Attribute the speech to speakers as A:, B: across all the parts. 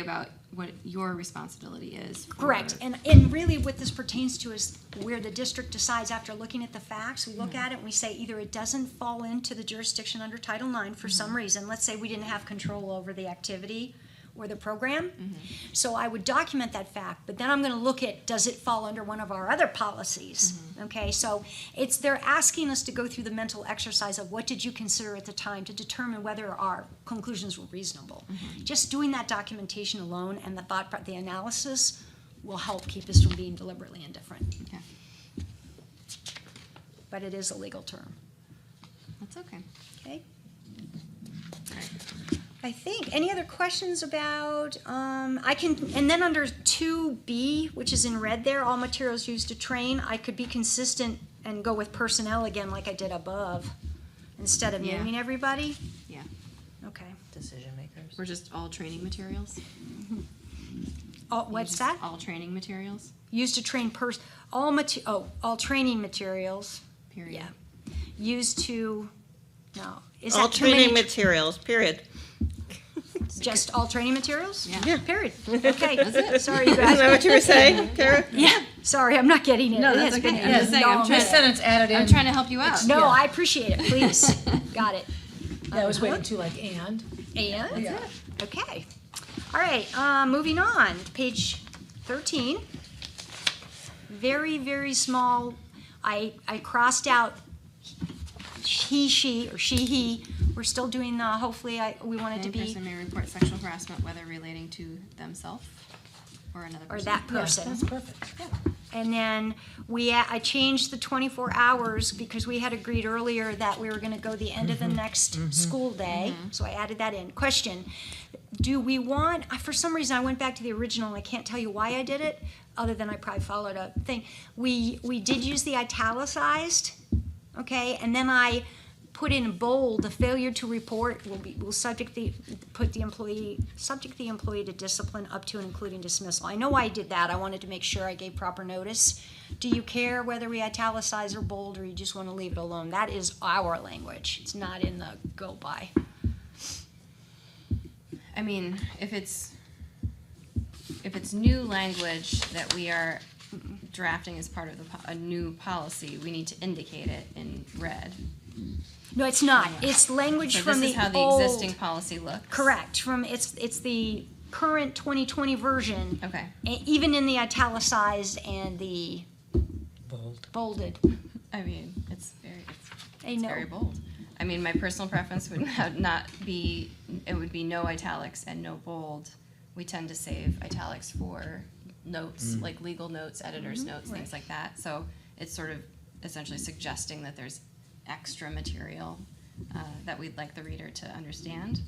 A: about what your responsibility is. for-
B: Correct, and, and really what this pertains to is where the district decides after looking at the facts, we look at it and we say either it doesn't fall into the jurisdiction under Title IX for some reason, let's say we didn't have control over the activity or the program. So I would document that fact, but then I'm gonna look at, does it fall under one of our other policies? Okay, so it's, they're asking us to go through the mental exercise of what did you consider at the time to determine whether our conclusions were reasonable. Just doing that documentation alone and the thought, pro- the analysis will help keep us from being deliberately indifferent,
A: Okay,
B: but it is a legal term,
A: that's okay.
B: okay?
A: All right.
B: I think. Any other questions about, um, I can, and then under two B, which is in red there, all materials used to train, I could be consistent and go with personnel again like I did above, instead of
A: Yeah.
B: naming everybody?
A: Yeah,
B: Okay.
C: Decision makers.
A: we're just all training materials.
B: All, what's
A: Just
B: that?
A: All training materials,
B: Used to train pers, all mate, oh, all training materials,
A: period.
B: yeah. Used to, no. Is
C: All
B: that too many
C: training
B: tr-
C: materials, period.
B: Just all training materials?
A: Yeah.
C: Yeah.
B: Period. Okay.
A: That's it.
B: Sorry, you
C: Isn't that
B: guys.
C: what you were saying, Kara?
B: Yeah. Sorry, I'm not getting it.
A: No,
B: It
A: Oh, that's
B: has
A: okay.
B: been-
A: I'm just saying, I'm
B: No,
A: trying to,
D: added
A: I'm trying to help you out.
B: No, I appreciate it, please. Got it.
D: That was
E: Uh-huh.
D: way too like and.
B: And,
D: Yeah.
B: okay. All right, uh, moving on, to page thirteen. Very, very small, I, I crossed out he, she, or she, he. We're still doing the, hopefully, I, we wanted to
A: Any
B: be,
A: person may report sexual harassment, whether relating to themselves or another
B: or
A: person.
B: that person.
D: That's perfect.
B: And then we, I changed the 24 hours because we had agreed earlier that we were gonna go the end of the next school day. So I added that in. Question, do we want, I- for some reason, I went back to the original and I can't tell you why I did it, other than I probably followed a thing. We, we did use the italicized, okay? And then I put in bold, the failure to report will be, will subject the, put the employee, subject the employee to discipline up to and including dismissal. I know why I did that, I wanted to make sure I gave proper notice. Do you care whether we italicize or bold, or you just wanna leave it alone? That is our language, it's not in the go by.
A: I mean, if it's, if it's new language that we are drafting as part of the, po- a new policy, we need to indicate it in red.
B: No, it's not, it's language
A: So
B: from
A: this is
B: the
A: how the existing
B: old,
A: policy looks.
B: correct, from, it's, it's the current twenty twenty version,
A: Okay,
B: e- even in the italicized and the
C: Bold.
B: bolded.
A: I mean, it's very, it's
B: I
A: It's
B: know.
A: very bold. I mean, my personal preference would not- not be, it would be no italics and no bold. We tend to save italics for notes, like legal notes,
B: Mm-hmm.
A: editor's notes, things like that. So it's sort of essentially suggesting that there's extra material uh, that we'd like the reader to understand.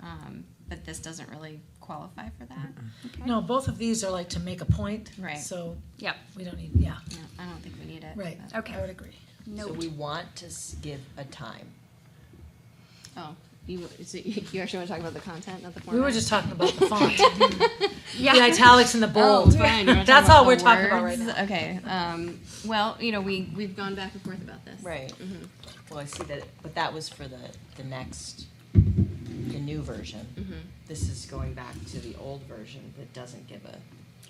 A: Um, But this doesn't really qualify for that.
D: No, both of these are like to make a point.
A: Right.
D: So
B: Yep.
D: we don't need, yeah,
A: No, I don't think we need it.
D: right.
A: but-
B: Okay.
D: I would agree.
C: So
B: Note.
C: we want to s- give a time.
A: Oh, you, so you actually want to talk about the content, not the format?
D: We were just talking about the font, the
B: Yeah.
D: italics and the bold.
A: Oh, fine. You wanna talk
D: That's
A: about
D: all
A: the
D: we're talking about right
A: words?
D: now.
A: Okay. Um, well, you know, we we've gone back and forth about this.
C: Right. Well, I see that, but that was for the, the next, the new version. This is going back to the old version that doesn't give a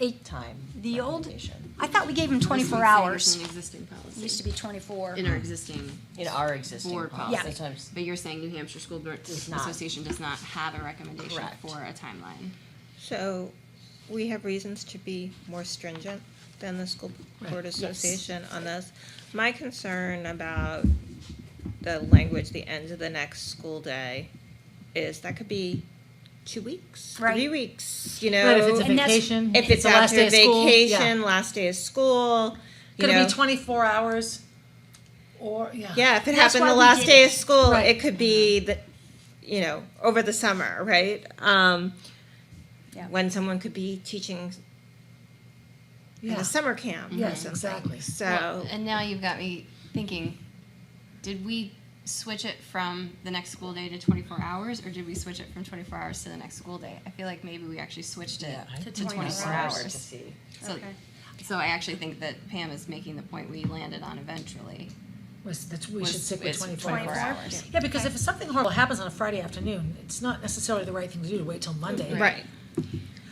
B: Eight-
C: time
B: The old-
C: recommendation
B: I thought we gave them
A: This one's
B: twenty-four
A: saying it's
B: hours.
A: an existing policy.
B: Used to be twenty-four.
A: in our existing,
C: in our existing
A: Board
C: policy.
B: policy.
C: Sometimes-
A: but you're saying New Hampshire School Board
C: Does not.
A: Association does not have a recommendation
C: Correct.
A: for a timeline.
E: So, we have reasons to be more stringent than the school board association on this. My concern about the language, the end of the next school day, is that could be two weeks, three
B: Right.
E: weeks, you know?
D: Right, if it's a
B: And that's-
D: vacation.
E: If it's
D: the last
E: after
D: day of school, yeah.
E: vacation, last day of school, you
D: Could it
E: know?
D: be twenty-four hours? Or, yeah.
E: Yeah, if it
B: That's
E: happened
B: why
E: the
B: we
E: last
B: did
E: day
B: it.
E: of school,
D: Right.
E: it could be the, you know, over the summer, right? Um,
B: Yeah.
E: When someone could be teaching at
D: Yeah.
E: a summer camp. or
D: Yes,
E: something.
D: exactly.
E: So
A: Well, and now you've got me thinking: Did we switch it from the next school day to 24 hours, or did we switch it from 24 hours to the next school day? I feel like maybe we actually switched it
C: Yeah, I
A: to,
C: think
A: 24
B: it's
A: hours.
C: To see.
A: So,
B: Okay.
A: so I actually think that Pam is making the point we landed on eventually.
D: Was, that's, we
A: was-
D: should stick with
A: is
D: twenty-four
A: 24
D: hours.
A: hours.
D: Yeah, because if something horrible happens on a Friday afternoon, it's not necessarily the right thing to do to wait till Monday.
E: Right.